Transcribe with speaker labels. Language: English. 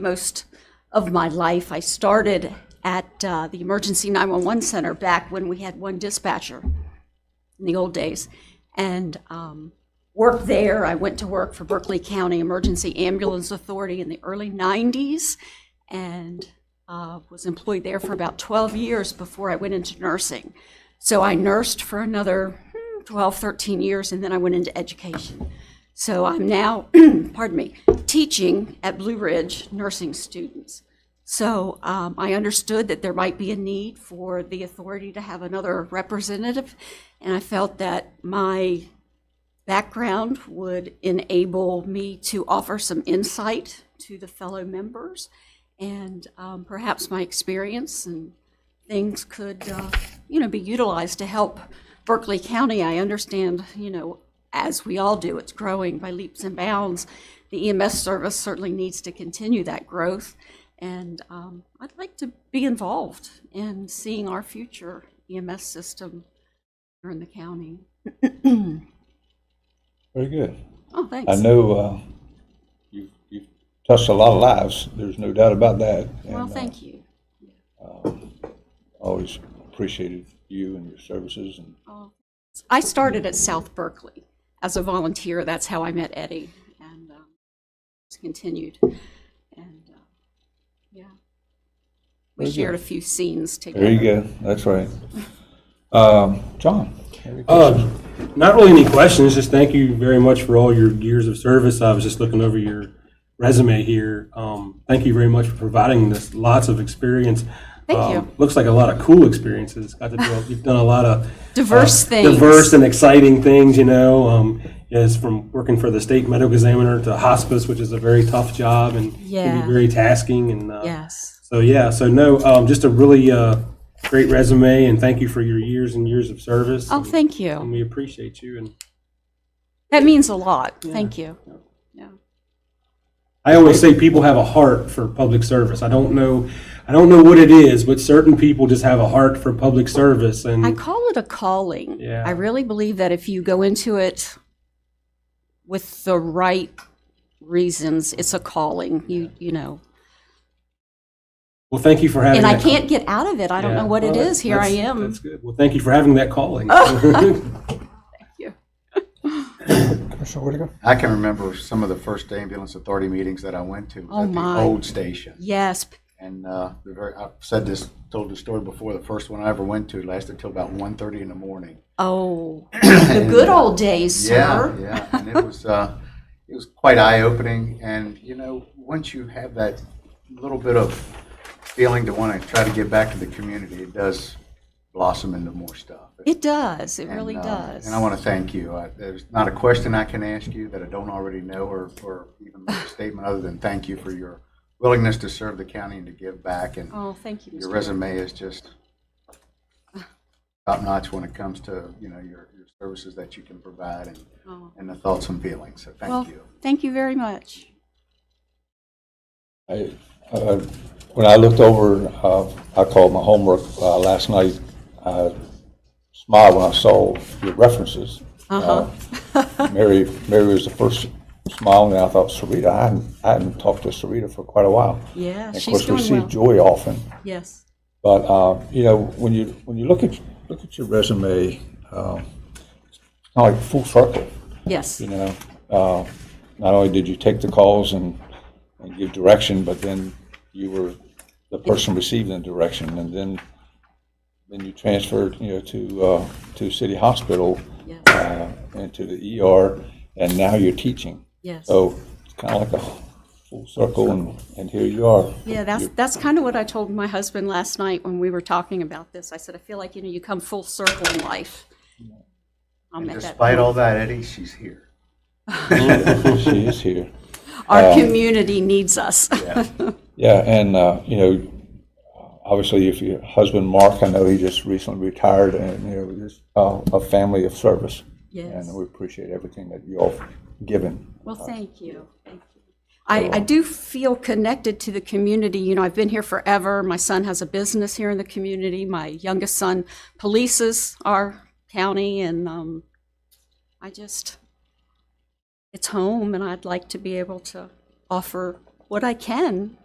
Speaker 1: most of my life. I started at uh, the Emergency 911 Center back when we had one dispatcher in the old days and um, worked there. I went to work for Berkeley County Emergency Ambulance Authority in the early 90s and uh, was employed there for about 12 years before I went into nursing. So I nursed for another hmm, 12, 13 years, and then I went into education. So I'm now, pardon me, teaching at Blue Ridge nursing students. So um, I understood that there might be a need for the authority to have another representative, and I felt that my background would enable me to offer some insight to the fellow members, and um, perhaps my experience and things could, uh, you know, be utilized to help Berkeley County. I understand, you know, as we all do, it's growing by leaps and bounds. The EMS service certainly needs to continue that growth, and um, I'd like to be involved in seeing our future EMS system here in the county.
Speaker 2: Very good.
Speaker 1: Oh,
Speaker 2: I
Speaker 1: thanks.
Speaker 2: know uh, you've you've touched a lot of lives, there's no doubt about that.
Speaker 1: Well,
Speaker 2: and, uh,
Speaker 1: thank you.
Speaker 2: Always appreciated you and your services, and
Speaker 1: Oh, I started at South Berkeley as a volunteer. That's how I met Eddie, and um, it's continued. And uh, yeah, we
Speaker 2: Very good.
Speaker 1: shared a few scenes together.
Speaker 2: there you go, that's right. Um, John? any
Speaker 3: Uh, Not really any questions, just thank you very much for all your years of service. I was just looking over your resume here. Um, Thank you very much for providing this, lots of experience.
Speaker 1: Thank
Speaker 3: Um,
Speaker 1: you.
Speaker 3: Looks like a lot of cool experiences. Got to do, a- you've done a lot of.
Speaker 1: Diverse
Speaker 3: uh,
Speaker 1: things.
Speaker 3: Diverse and exciting things, you know. Um, Yes, from working for the state medical examiner to hospice, which is a very tough job and can
Speaker 1: Yeah.
Speaker 3: be very tasking and. uh,
Speaker 1: Yes.
Speaker 3: so yeah, so no, um, just a really uh, great resume, and thank you for your years and years of service.
Speaker 1: Oh,
Speaker 3: and-
Speaker 1: thank
Speaker 3: And
Speaker 1: you.
Speaker 3: we appreciate you. And
Speaker 1: That means a lot. Thank you. Yeah.
Speaker 3: I always say people have a heart for public service. I don't know, I don't know what it is, but certain people just have a heart for public service. And
Speaker 1: I call it a calling.
Speaker 3: Yeah.
Speaker 1: I really believe that if you go into it with the right reasons, it's a calling. You you know,
Speaker 3: well, thank you for having.
Speaker 1: and I
Speaker 3: that call-
Speaker 1: can't get out of it. I don't
Speaker 3: Yeah.
Speaker 1: know what it
Speaker 3: Well,
Speaker 1: is. Here I
Speaker 3: that's-
Speaker 1: am.
Speaker 3: That's good. Well, thank you for having that calling.
Speaker 2: Commissioner Whittaker?
Speaker 4: I can remember some of the first ambulance authority meetings that I went to
Speaker 1: Oh,
Speaker 4: was at
Speaker 1: my.
Speaker 4: the old station.
Speaker 1: Yes, p-
Speaker 4: And uh, the very, I've said this, told the story before, the first one I ever went to lasted till about 1:30 in the morning.
Speaker 1: Oh, the good old days,
Speaker 4: Yeah,
Speaker 1: sir.
Speaker 4: yeah, and it was, uh, it was quite eye-opening, and, you know, once you have that little bit of feeling to want to try to give back to the community, it does blossom into more stuff.
Speaker 1: It does. It really
Speaker 4: And, uh,
Speaker 1: does.
Speaker 4: And I want to thank you. I- There's not a question I can ask you that I don't already know or, or even make a statement other than thank you for your willingness to serve the county and to give back. And
Speaker 1: Oh, thank you,
Speaker 4: your
Speaker 1: Mr.
Speaker 4: resume is just top-notch when it comes to, you know, your, your services that you can provide and,
Speaker 1: Oh.
Speaker 4: and the thoughts and feelings. So
Speaker 1: Well,
Speaker 4: thank you.
Speaker 1: thank you very much.
Speaker 2: I- uh, When I looked over, uh, I called my homework uh, last night, I smiled when I saw your references.
Speaker 1: Uh-huh.
Speaker 2: Uh, Mary, Mary was the first smile, and I thought, Sarita, I hadn't- I hadn't talked to Sarita for quite a while.
Speaker 1: Yeah,
Speaker 2: And Of
Speaker 1: she's
Speaker 2: course, we
Speaker 1: doing
Speaker 2: see
Speaker 1: well.
Speaker 2: Joy often,
Speaker 1: Yes.
Speaker 2: but, uh, you know, when you, when you look at, look at your resume, um, it's kind of like full circle
Speaker 1: Yes.
Speaker 2: you know, uh, not only did you take the calls and, and give direction, but then you were the person receiving the direction, and then, then you transferred, you know, to, uh, to City Hospital,
Speaker 1: Yes.
Speaker 2: uh, and to the ER, and now you're teaching.
Speaker 1: Yes.
Speaker 2: So it's kind of like a full circle, and, and here you are.
Speaker 1: Yeah, that's, that's kind of what I told my husband last night when we were talking about this. I said, I feel like, you know, you come full circle in life. I'll
Speaker 4: And
Speaker 1: make that.
Speaker 4: despite all that, Eddie, she's here.
Speaker 2: She is here.
Speaker 1: Our community needs us.
Speaker 2: Yeah, and, uh, you know, obviously, if your husband, Mark, I know he just recently retired, and, you know, just uh, a family of service.
Speaker 1: Yes.
Speaker 2: And we appreciate everything that you all given.
Speaker 1: Well, thank you. Thank you. I, I do feel connected to the community. You know, I've been here forever. My son has a business here in the community. My youngest son polices our county, and um, I just, it's home, and I'd like to be able to offer what I can